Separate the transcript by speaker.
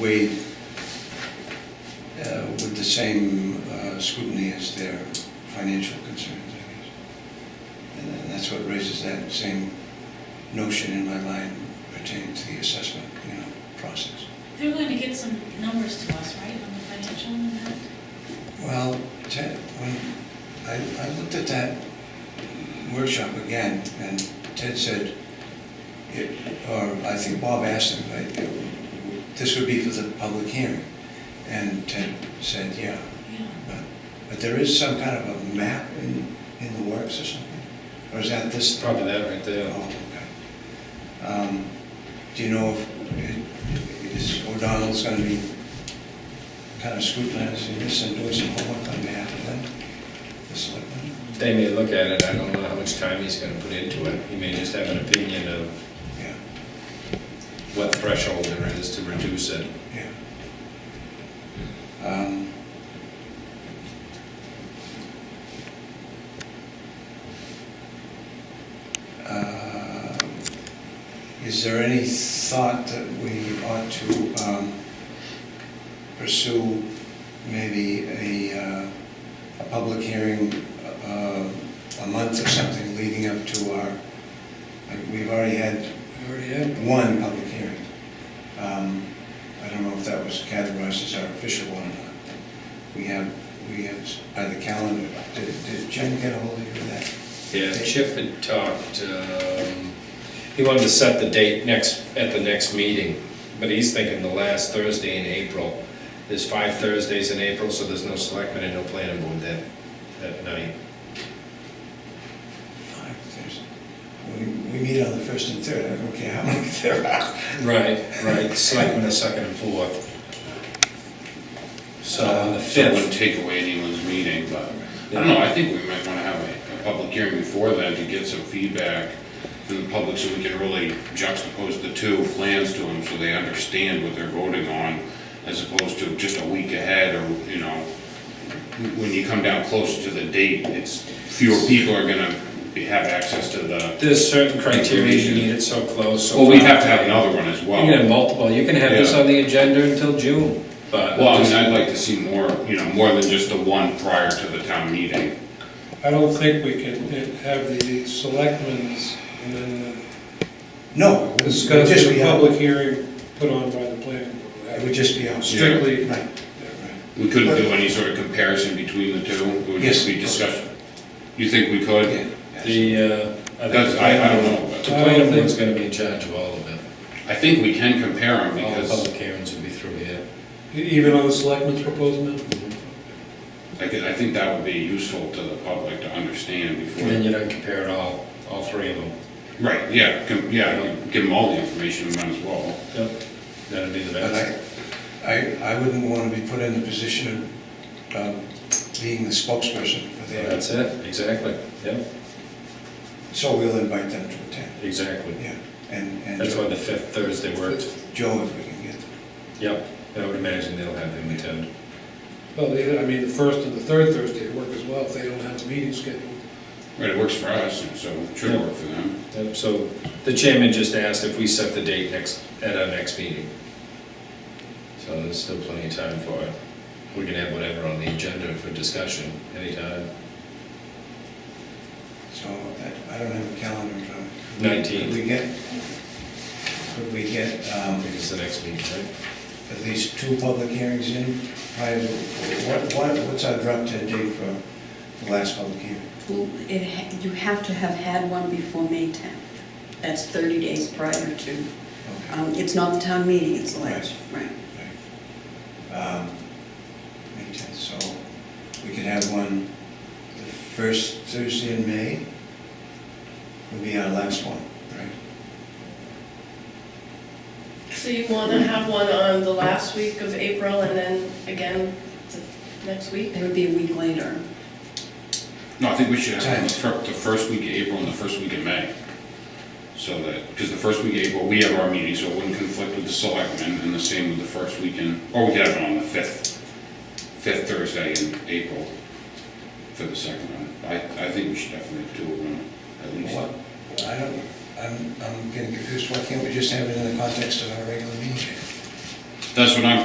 Speaker 1: weighed uh, with the same uh, scrutiny as their financial concerns, I guess. And then that's what raises that same notion in my mind pertaining to the assessment, you know, process.
Speaker 2: They're going to get some numbers to us, right, on the financial impact?
Speaker 1: Well, Ted, when, I, I looked at that workshop again, and Ted said, it, or I think Bob asked him, like, this would be for the public hearing. And Ted said, yeah,
Speaker 2: Yeah.
Speaker 1: but, but there is some kind of a map in, in the works or something? Or is that this?
Speaker 3: Probably that right there.
Speaker 1: Oh, okay. Um, Do you know if, it- is O'Donnell's gonna be kind of scrutinizing this and doing some homework on behalf of them? The selectmen?
Speaker 3: They may look at it, I don't know how much time he's gonna put into it. He may just have an opinion of
Speaker 1: Yeah,
Speaker 3: what threshold there is to reduce it.
Speaker 1: yeah. Um, uh, Is there any thought that we ought to um, pursue maybe a, uh, a public hearing uh, a month or something leading up to our, like, we've already had one public hearing. Um, I don't know if that was categorized as our official one or not. We have, we have, by the calendar, did did Jen get a hold of you for that?
Speaker 3: Yeah, Chip had talked, um, he wanted to set the date next, at the next meeting, but he's thinking the last Thursday in April. There's five Thursdays in April, so there's no selectmen and no planning board that, that night.
Speaker 1: Five, there's- We, we meet on the first and third, I don't care how many there are.
Speaker 3: Right, right, selectmen are second and fourth. So on the
Speaker 4: So it wouldn't
Speaker 3: fifth,
Speaker 4: take away anyone's meeting, but, I don't know, I think we might wanna have a, a public hearing before then to get some feedback from the public, so we can really juxtapose the two plans to them, so they understand what they're voting on, as opposed to just a week ahead, or, you know, when you come down closer to the date, it's, fewer people are gonna be- have access to the,
Speaker 3: there's certain criteria, you need it so close, so.
Speaker 4: well, we'd
Speaker 3: far.
Speaker 4: have to have another one as well.
Speaker 3: You can have multiple, you can have this
Speaker 4: Yeah.
Speaker 3: on the agenda until June, but.
Speaker 4: Well, I mean, I'd like to see more, you know, more than just the one prior to the town meeting.
Speaker 5: I don't think we can have the selectmen's and then
Speaker 1: No, it would just
Speaker 5: discuss the
Speaker 1: be out.
Speaker 5: public hearing put on by the planning
Speaker 1: It
Speaker 5: board.
Speaker 1: would just be out.
Speaker 5: Strictly,
Speaker 1: Right.
Speaker 4: We couldn't do any sort of comparison between the two? It would just be
Speaker 1: Yes.
Speaker 4: discussion? You think we could?
Speaker 1: Yeah, yes.
Speaker 3: The, uh. think
Speaker 4: That's, I, I don't know.
Speaker 3: The
Speaker 4: but
Speaker 3: planning board's gonna be in charge of all of it.
Speaker 4: I think we can compare
Speaker 1: Oh,
Speaker 4: them
Speaker 3: All the
Speaker 4: because
Speaker 3: public hearings will be through here.
Speaker 5: Even on the selectmen's proposal now?
Speaker 4: I could, I think that would be useful to the public to understand
Speaker 3: And then
Speaker 4: before.
Speaker 3: you don't compare it all, all three of them.
Speaker 4: Right, yeah, com- yeah, you give them all the information, we might as well.
Speaker 3: Yep. That'd be the
Speaker 1: But
Speaker 3: best.
Speaker 1: I, I, I wouldn't want to be put in the position of um, being the spokesperson for their,
Speaker 3: That's it, exactly, yep,
Speaker 1: so we'll invite them to attend,
Speaker 3: exactly.
Speaker 1: yeah. And, and
Speaker 3: That's why the fifth Thursday worked.
Speaker 1: Joe, if we can get them.
Speaker 3: Yep, I would imagine they'll have them attend.
Speaker 5: Well, they- I mean, the first and the third Thursday work as well, if they don't have a meeting scheduled.
Speaker 4: Right, it works for us, and so it should work for them.
Speaker 3: Yep, so the chairman just asked if we set the date next, at our next meeting. So there's still plenty of time for it. We can have whatever on the agenda for discussion anytime.
Speaker 1: So I- I don't have a calendar in front of me. Could
Speaker 3: 19th,
Speaker 1: we get, could we get
Speaker 3: I
Speaker 1: um,
Speaker 3: think is the next meeting, right?
Speaker 1: at least two public hearings in prior to, what, what- what's our drop dead date for the last public hearing?
Speaker 6: Well, it, ha- you have to have had one before May 10th. That's 30 days prior to,
Speaker 1: Okay.
Speaker 6: um, it's not the town meeting, it's the last, right.
Speaker 1: Right. Um, May tenth, so we could have one the first Thursday in May, would be our last one, right?
Speaker 7: So you want to have one on the last week of April and then again the next week?
Speaker 6: It would be a week later.
Speaker 4: No, I think we should have the fir- the first week of April and the first week of May. So that, because the first week of April, we have our meeting, so it wouldn't conflict with the selectmen, and the same with the first weekend, or we could have it on the fifth, fifth Thursday in April for the second one. I, I think we should definitely have two of them, at least.
Speaker 1: What, I don't, I'm, I'm getting confused, why can't we just have it in the context of our regular meeting?
Speaker 4: That's what I'm